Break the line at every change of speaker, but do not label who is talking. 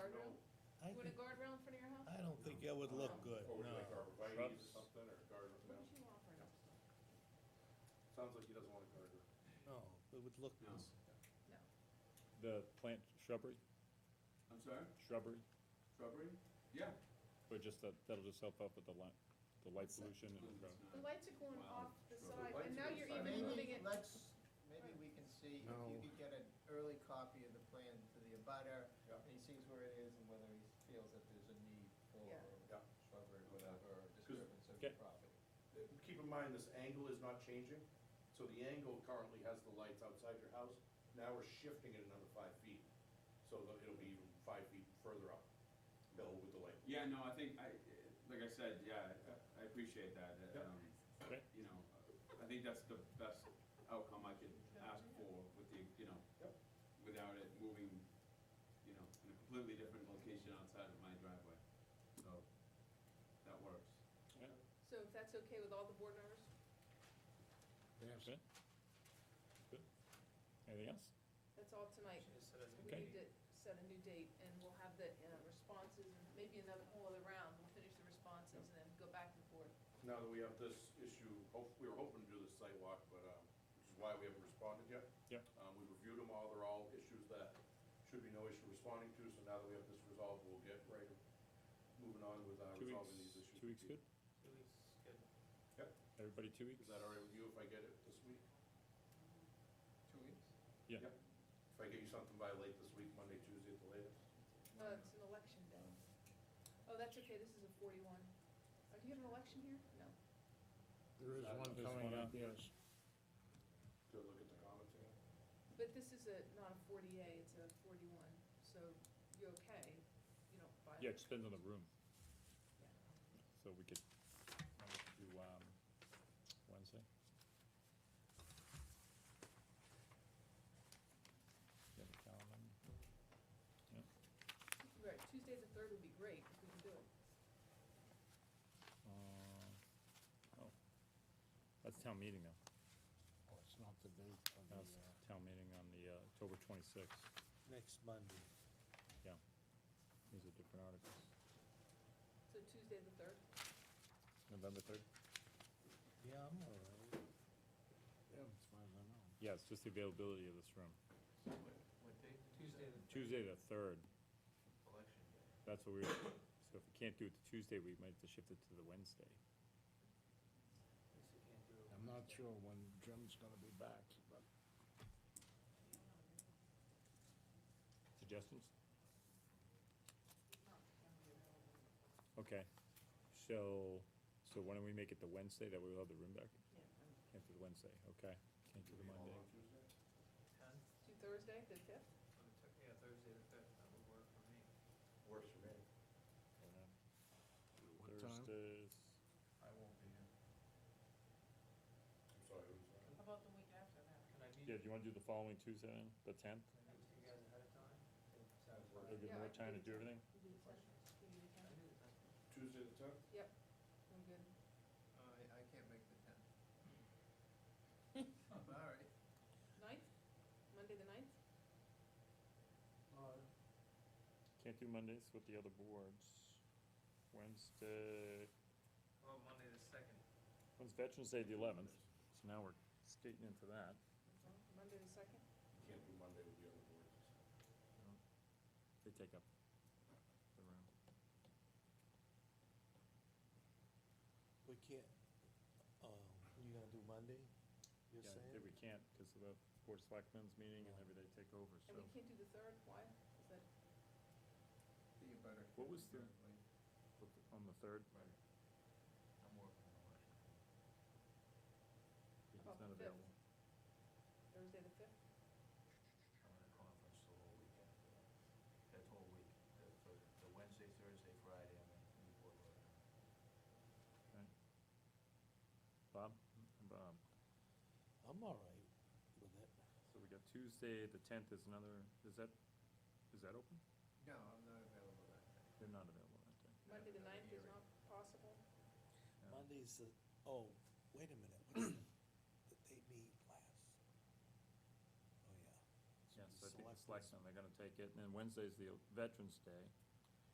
don't think it would look good,
Or would you
no.
like arborvitae's or something, or garden?
What did you offer us?
Sounds like he doesn't want a garden.
No, it would look,
No.
No.
The plant shrubbery,
I'm sorry,
shrubbery,
shrubbery? Yeah.
or just that, that'll just help out with the light, the light pollution and, uh,
It's
The
not-
lights are going
Wow.
off the
The
side,
lights
and
are
now
going
you're
side
even
by side.
moving
Maybe,
it.
let's, maybe we can see if you could get an early copy of the plan to the abutter,
Yeah.
and he sees where it is and whether he feels that there's a need for
Yeah.
Yeah.
shrubbery, or whatever, or disturbance of the
Okay.
property.
Uh, Keep in mind, this angle is not changing, so the angle currently has the lights outside your house. Now we're shifting it another five feet, so that it'll be even five feet further up, Bill, with the light.
Yeah, no, I think, I, like I said, yeah, I- I appreciate that, uh,
Yep.
um,
Okay.
you know, I think that's the best outcome I could ask for with the, you know,
Yep.
without it moving, you know, in a completely different location outside of my driveway, so, that works.
So if that's okay with all the board members?
okay? Good. Anything else?
That's all tonight. We
Okay.
need to set a new date, and we'll have the uh, responses, and maybe another whole other round. We'll finish the responses and then go back and forth.
Now that we have this issue, oh, hope, we were hoping to do this sidewalk, but, um, which is why we haven't responded yet.
Yep.
Um, we reviewed them all, they're all issues that should be no issue responding to, so now that we have this resolved, we'll get right, moving on with, uh,
Two weeks,
resolving these issues.
two weeks good?
Yep.
Everybody two weeks?
Is that all right with you if I get it this week?
Two weeks?
Yeah,
Yep. If I get you something by late this week, Monday, Tuesday at the latest?
Well, Uh, it's an election day. Oh, that's okay, this is a forty-one. Oh, do you have an election here? No.
There is one
There's
coming
one
up,
out.
yes.
Go look at the comments again.
But this is a, not a forty A, it's a forty-one, so you're okay. You don't buy
yeah, it depends on the room,
Yeah.
so we could, uh, we could do, um, Wednesday? Yeah, the calendar. Yeah,
Right, Tuesday the third would be great if we can do it.
uh, oh, that's town meeting though.
Oh, it's not the date of the,
That's
uh,
town meeting on the uh, October twenty-sixth,
next Monday.
yeah. These are different articles.
So Tuesday the third?
November third?
Yeah, I'm all right.
yeah, as far as I know.
Yeah, it's just the availability of this room.
What date? Tuesday the
Tuesday the third,
election day.
that's what we, were- so if we can't do it to Tuesday, we might have to shift it to the Wednesday.
Guess you can't do it
I'm not
Wednesday.
sure when Jim's gonna be back, but
Suggestions? Okay, so, so why don't we make it the Wednesday, that way we'll have the room back?
Yeah.
Can't do the Wednesday, okay, can't do the Monday.
Ten?
To Thursday, the fifth?
On the tech- Yeah, Thursday the fifth, that would work for me.
Works for me.
what time?
Thursdays,
I won't be here.
I'm sorry, who's that?
How about the week after that?
Can I meet,
yeah,
can
do you wanna do the following Tuesday then, the tenth?
I meet you guys ahead of time?
Sounds
It'll give
Yeah, I
more
can
time
do the
to do
10th.
everything?
We do the 10th. We do the
Can I
10th.
do the tenth?
Tuesday the tenth?
Yep, I'm good.
Uh,
I, I can't make the tenth. I'm all right.
Ninth, Monday the ninth?
uh,
Can't do Mondays with the other boards. Wednesday,
well, Monday the second.
when's Veterans Day, the eleventh, so now we're skating into that.
Monday the second?
You Can't do Monday with the other boards.
They take up the room.
We can't, um, you gonna do Monday, you're
Yeah,
saying?
that we can't, because of the Board of Selectmen's meeting and
Yeah.
every they take over, so.
And we can't do the third, why? Is that,
The abutter.
What was the-
Right.
On the third,
Right. I'm working on it.
it's
about
not
Oh, the fifth?
available.
Thursday the fifth?
I'm in a conference the whole week after that. That whole week, the, for the Wednesday, Thursday, Friday, I'm in Newport. Rhode Island.
Okay. Bob, Mm-hmm. Bob,
I'm all right with it.
so we got Tuesday, the tenth is another, is that, is that open?
No, I'm not available that day.
They're not available that day.
Monday the
another
ninth is
hearing.
not possible?
Yeah.
Monday's the, oh, wait a minute, what's the, that they meet last? Oh, yeah.
Yeah, so I think the
Selectmen's-
selectmen, they're gonna take it, and then Wednesday's the Veterans Day,